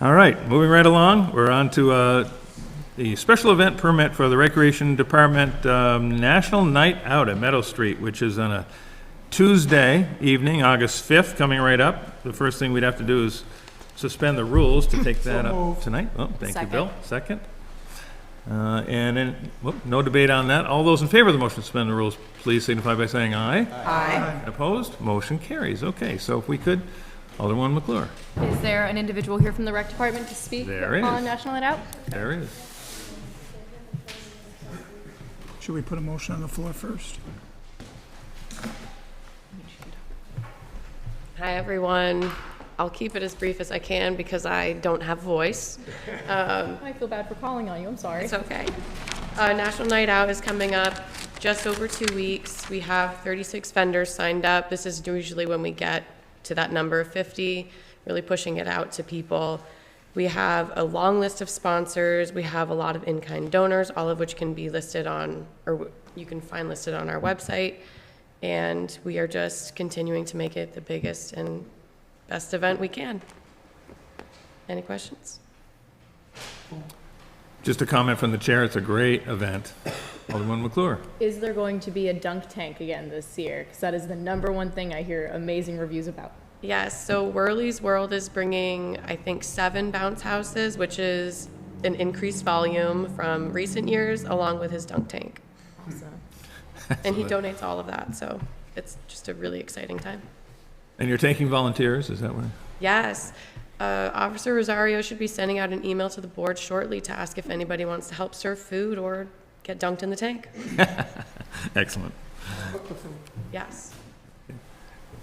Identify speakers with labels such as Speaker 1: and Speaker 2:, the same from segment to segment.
Speaker 1: All right, moving right along, we're on to uh, the special event permit for the Recreation Department um, National Night Out at Meadow Street, which is on a Tuesday evening, August 5th, coming right up. The first thing we'd have to do is suspend the rules to take that up tonight. Oh, thank you, Bill. Second. Uh, And then, whoop, no debate on that. All those in favor of the motion to suspend the rules, please signify by saying aye.
Speaker 2: Aye.
Speaker 1: Opposed? Motion carries. Okay, so if we could, Alderman McClure.
Speaker 3: Is there an individual here from the rec department to speak
Speaker 1: There is.
Speaker 3: on National Night Out?
Speaker 1: There it is.
Speaker 2: Should we put a motion on the floor first?
Speaker 4: Hi, everyone. I'll keep it as brief as I can because I don't have voice.
Speaker 3: I feel bad for calling on you, I'm sorry.
Speaker 4: It's okay. Uh, National Night Out is coming up just over two weeks. We have 36 vendors signed up. This is usually when we get to that number of 50, really pushing it out to people. We have a long list of sponsors. We have a lot of in-kind donors, all of which can be listed on, or w- you can find listed on our website. And we are just continuing to make it the biggest and best event we can. Any questions?
Speaker 1: Just a comment from the chair, it's a great event. Alderman McClure.
Speaker 3: Is there going to be a dunk tank again this year? Because that is the number one thing I hear amazing reviews about.
Speaker 4: Yes, so Whirly's World is bringing, I think, seven bounce houses, which is an increased volume from recent years, along with his dunk tank. And he donates all of that, so it's just a really exciting time.
Speaker 1: And you're taking volunteers, is that what?
Speaker 4: Yes, uh, Officer Rosario should be sending out an email to the board shortly to ask if anybody wants to help serve food or get dunked in the tank.
Speaker 1: Excellent.
Speaker 4: Yes.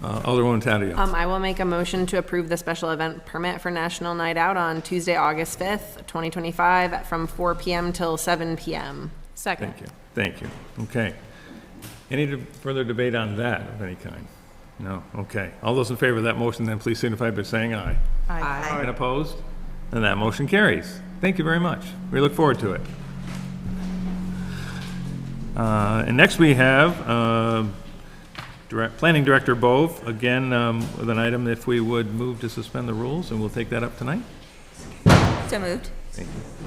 Speaker 1: Uh, Alderwoman Taddeo.
Speaker 5: Um, I will make a motion to approve the special event permit for National Night Out on Tuesday, August 5th, 2025, from 4 PM till 7 PM.
Speaker 4: Second.
Speaker 1: Thank you, thank you. Okay. Any de- further debate on that of any kind? No, okay. All those in favor of that motion, then please signify by saying aye.
Speaker 5: Aye.
Speaker 1: And opposed? And that motion carries. Thank you very much. We look forward to it. Uh, And next we have uh, Direct- Planning Director Bove, again, um, with an item if we would move to suspend the rules, and we'll take that up tonight.
Speaker 6: So moved.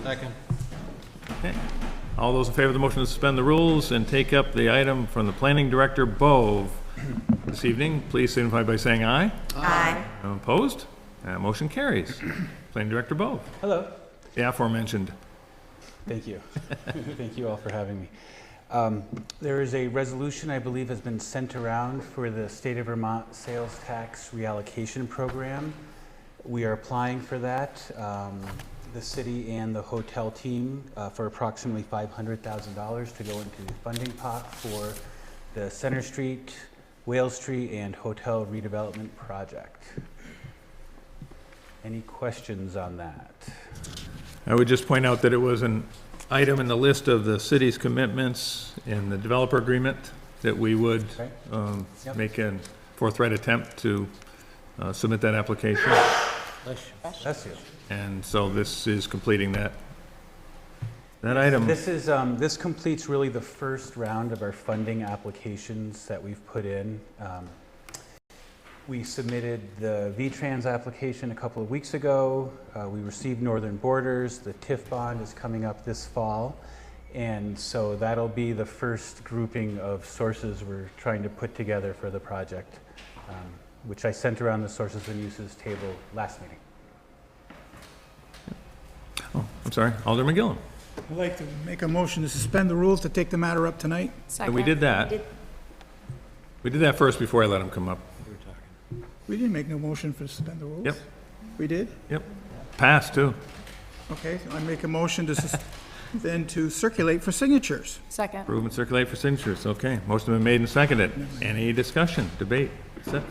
Speaker 1: Okay. All those in favor of the motion to suspend the rules and take up the item from the Planning Director Bove this evening, please signify by saying aye.
Speaker 6: Aye.
Speaker 1: Opposed? Uh, Motion carries. Planning Director Bove,
Speaker 7: Hello.
Speaker 1: the aforementioned
Speaker 7: Thank you. Thank you all for having me. Um, There is a resolution I believe has been sent around for the State of Vermont Sales Tax Reallocation Program. We are applying for that, um, the city and the hotel team, uh, for approximately $500,000 to go into the funding pot for the Center Street, Whale Street, and Hotel redevelopment project. Any questions on that?
Speaker 1: I would just point out that it was an item in the list of the city's commitments in the developer agreement that we would
Speaker 7: Okay.
Speaker 1: um,
Speaker 7: Yep.
Speaker 1: make a forthright attempt to uh, submit that application.
Speaker 7: Bless you.
Speaker 1: And so this is completing that, that item.
Speaker 7: This is, um, this completes really the first round of our funding applications that we've put in. Um, We submitted the V-Trans application a couple of weeks ago. Uh, We received Northern Borders. The TIF bond is coming up this fall. And so that'll be the first grouping of sources we're trying to put together for the project, um, which I sent around the sources and uses table last meeting.
Speaker 1: Oh, I'm sorry, Alderman Gillum.
Speaker 2: I'd like to make a motion to suspend the rules to take the matter up tonight.
Speaker 1: And we did that. We did that first before I let him come up.
Speaker 2: We didn't make no motion for suspend the rules.
Speaker 1: Yep.
Speaker 2: We did?
Speaker 1: Yep. Passed, too.
Speaker 2: Okay, so I make a motion to sus, then to circulate for signatures.
Speaker 5: Second.
Speaker 1: Approve and circulate for signatures, okay. Motion been made and seconded. Any discussion, debate, etc.?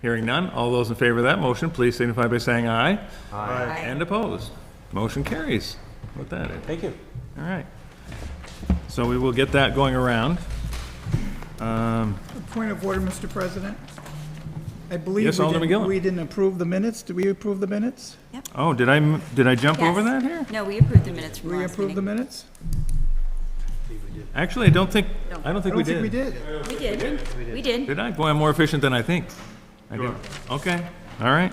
Speaker 1: Hearing none, all those in favor of that motion, please signify by saying aye. Aye. And opposed. Motion carries. What that is,
Speaker 7: Thank you.
Speaker 1: all right. So we will get that going around. Um,
Speaker 2: Point of order, Mr. President. I believe
Speaker 1: Yes,
Speaker 2: we
Speaker 1: Alderman
Speaker 2: didn't-
Speaker 1: Gillen.
Speaker 2: We didn't approve the minutes. Did we approve the minutes?
Speaker 1: Oh, did I, m- did I jump over
Speaker 6: Yes.
Speaker 1: that here?
Speaker 6: No, we approved the minutes from
Speaker 2: We
Speaker 6: last
Speaker 2: approved the
Speaker 6: meeting.
Speaker 2: minutes?
Speaker 1: Actually, I don't think, I don't
Speaker 2: I
Speaker 1: think we
Speaker 2: don't think we
Speaker 1: did.
Speaker 2: did.
Speaker 6: We did. We did.
Speaker 1: Did I? Boy, I'm more efficient than I think. I did. Okay, all right.